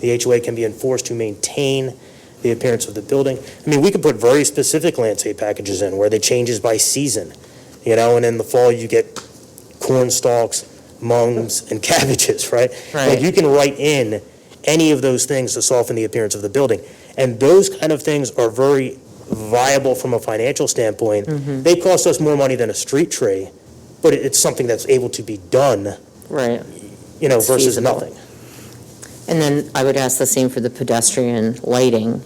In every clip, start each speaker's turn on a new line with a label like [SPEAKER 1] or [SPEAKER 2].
[SPEAKER 1] the HOA can be enforced to maintain the appearance of the building. I mean, we could put very specific landscape packages in where the changes by season, you know, and in the fall you get corn stalks, mums, and cabbages, right? Like
[SPEAKER 2] Right.
[SPEAKER 1] you can write in any of those things to soften the appearance of the building. And those kind of things are very viable from a financial standpoint.
[SPEAKER 2] Mm-hmm.
[SPEAKER 1] They cost us more money than a street tree, but it- it's something that's able to be done,
[SPEAKER 2] Right.
[SPEAKER 1] you know,
[SPEAKER 2] It's
[SPEAKER 1] versus
[SPEAKER 2] feasible.
[SPEAKER 1] nothing.
[SPEAKER 2] And then I would ask the same for the pedestrian lighting.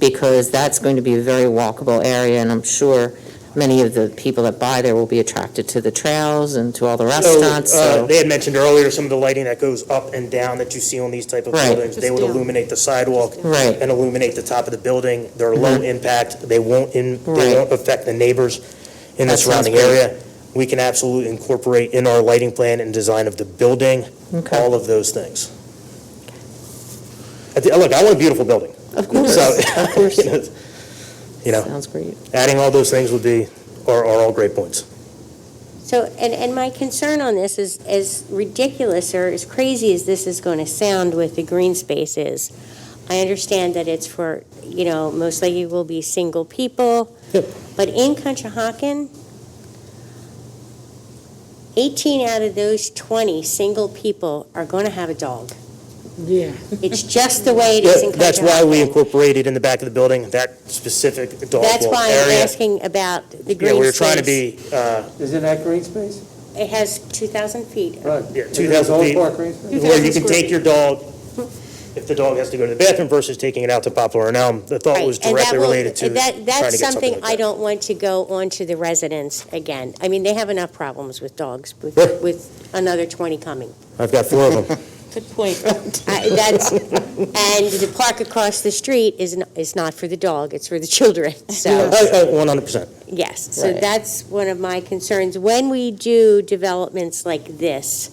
[SPEAKER 2] Because that's going to be a very walkable area, and I'm sure many of the people that buy there will be attracted to the trails and to all the restaurants,
[SPEAKER 1] uh,
[SPEAKER 2] so.
[SPEAKER 1] They had mentioned earlier some of the lighting that goes up and down that you see on these type of
[SPEAKER 2] Right.
[SPEAKER 1] buildings. They would
[SPEAKER 3] Just down.
[SPEAKER 1] illuminate the sidewalk.
[SPEAKER 2] Right. Mm-hmm.
[SPEAKER 1] And illuminate the top of the building. They're low impact. They won't, in- they
[SPEAKER 2] Right.
[SPEAKER 1] won't affect the neighbors in the
[SPEAKER 2] That sounds
[SPEAKER 1] surrounding
[SPEAKER 2] great.
[SPEAKER 1] area. We can absolutely incorporate in our lighting plan and design of the building,
[SPEAKER 2] Okay.
[SPEAKER 1] all of those things. I thi- Look, I want a beautiful building.
[SPEAKER 2] Of course,
[SPEAKER 1] So-
[SPEAKER 2] of course.
[SPEAKER 1] you know, You know,
[SPEAKER 2] Sounds great.
[SPEAKER 1] adding all those things would be, are are all great points.
[SPEAKER 3] So, and, and my concern on this is, as ridiculous or as crazy as this is going to sound with the green spaces, I understand that it's for, you know, most likely will be single people.
[SPEAKER 1] Yep.
[SPEAKER 3] But in Conshohocken, 18 out of those 20 single people are going to have a dog.
[SPEAKER 4] Yeah.
[SPEAKER 3] It's just the way it is in
[SPEAKER 1] Yeah, That's why we
[SPEAKER 3] Conshohocken.
[SPEAKER 1] incorporated in the back of the building, that specific dog
[SPEAKER 3] That's
[SPEAKER 1] walk
[SPEAKER 3] why I'm
[SPEAKER 1] area.
[SPEAKER 3] asking about the green space.
[SPEAKER 1] Yeah, we were trying to be, uh,
[SPEAKER 4] Is it that green space?
[SPEAKER 3] It has 2,000 feet.
[SPEAKER 4] Right.
[SPEAKER 1] Yeah,
[SPEAKER 4] Is it
[SPEAKER 1] 2,000
[SPEAKER 4] the
[SPEAKER 1] feet.
[SPEAKER 4] whole park green space?
[SPEAKER 1] where you
[SPEAKER 3] 2,000
[SPEAKER 1] can
[SPEAKER 3] square
[SPEAKER 1] take your dog, if the dog has to go to the bathroom versus taking it out to Poplar and Elm. The thought
[SPEAKER 3] Right,
[SPEAKER 1] was
[SPEAKER 3] and that
[SPEAKER 1] directly
[SPEAKER 3] will-
[SPEAKER 1] related to trying to
[SPEAKER 3] that-
[SPEAKER 1] get something like that.
[SPEAKER 3] That's something I don't want to go on to the residents again. I mean, they have enough problems with dogs, with,
[SPEAKER 1] Yeah.
[SPEAKER 3] with another 20 coming.
[SPEAKER 1] I've got four of them.
[SPEAKER 3] Good point. That's, and the park across the street is, n- is not for the dog, it's for the children, so,
[SPEAKER 1] I- I- 100%.
[SPEAKER 3] yes. So
[SPEAKER 2] Right.
[SPEAKER 3] that's one of my concerns. When we do developments like this,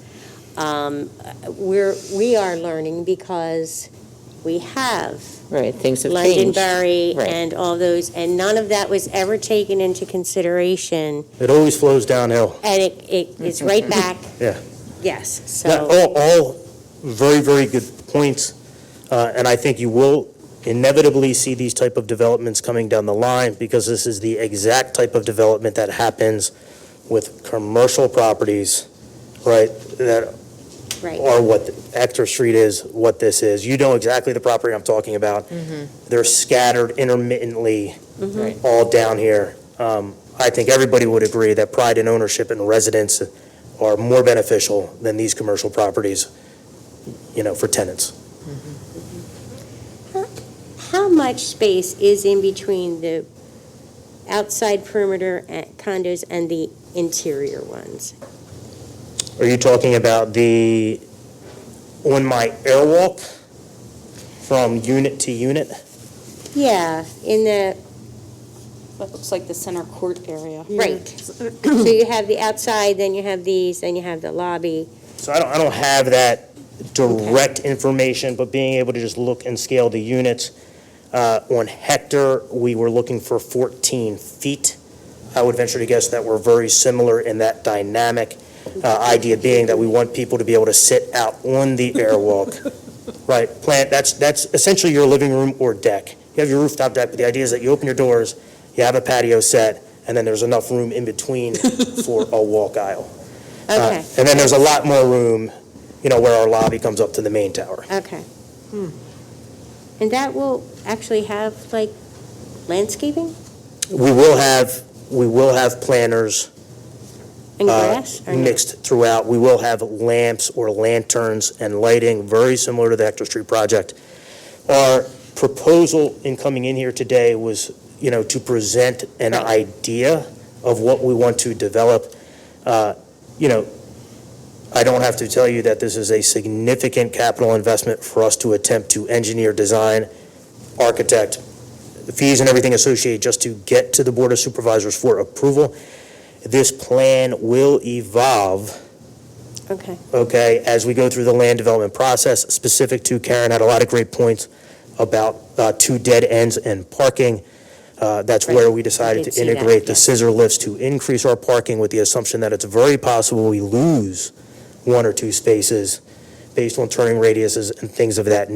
[SPEAKER 3] um, we're, we are learning because we have
[SPEAKER 2] Right, things have changed.
[SPEAKER 3] Londonderry
[SPEAKER 2] Right.
[SPEAKER 3] and all those, and none of that was ever taken into consideration,
[SPEAKER 1] It always flows downhill.
[SPEAKER 3] and it, it it's right back.
[SPEAKER 1] Mm-hmm. Yeah.
[SPEAKER 3] Yes,
[SPEAKER 1] Yeah,
[SPEAKER 3] so,
[SPEAKER 1] All, all very, very good points, uh, and I think you will inevitably see these type of developments coming down the line, because this is the exact type of development that happens with commercial properties, right, that
[SPEAKER 3] right,
[SPEAKER 1] are what Exeter Street is, what this is. You know exactly the property I'm talking about. They're scattered intermittently
[SPEAKER 2] Right.
[SPEAKER 1] all down here. Um, I think everybody would agree that pride in ownership and residence are more beneficial than these commercial properties, you know, for tenants.
[SPEAKER 3] how much space is in between the outside perimeter at condos and the interior ones?
[SPEAKER 1] Are you talking about the, on my airwalk from unit to unit?
[SPEAKER 3] Yeah, in the,
[SPEAKER 5] That looks like the center court area.
[SPEAKER 3] right, so you have the outside, then you have these, then you have the lobby,
[SPEAKER 1] So I don't, I don't have that direct information, but being able to just look and scale the units. uh, On Hector, we were looking for 14 feet. I would venture to guess that we're very similar in that dynamic, uh, idea being that we want people to be able to sit out on the airwalk. Right, plant, that's, that's essentially your living room or deck. You have your rooftop deck, but the idea is that you open your doors, you have a patio set, and then there's enough room in between for a walk aisle. Uh,
[SPEAKER 3] okay,
[SPEAKER 1] And then there's a lot more room, you know, where our lobby comes up to the main tower.
[SPEAKER 3] okay.
[SPEAKER 1] hmm.
[SPEAKER 3] And that will actually have like landscaping?
[SPEAKER 1] We will have, we will have planters
[SPEAKER 3] And
[SPEAKER 1] uh,
[SPEAKER 3] grass or no?
[SPEAKER 1] mixed throughout. We will have lamps or lanterns and lighting, very similar to the Hector Street project. Our proposal in coming in here today was, you know, to present an idea of what we want to develop. Uh, You know, I don't have to tell you that this is a significant capital investment for us to attempt to engineer, design, architect, the fees and everything associated just to get to the Board of Supervisors for approval. This plan will evolve
[SPEAKER 3] Okay,
[SPEAKER 1] okay, as we go through the land development process, specific to Karen had a lot of great points about uh, two dead ends and parking. Uh, That's where we
[SPEAKER 3] I
[SPEAKER 1] decided to
[SPEAKER 3] did see that,
[SPEAKER 1] integrate the
[SPEAKER 3] yes.
[SPEAKER 1] scissor lifts to increase our parking with the assumption that it's very possible we lose one or two spaces based on turning radiuses and things of that nature.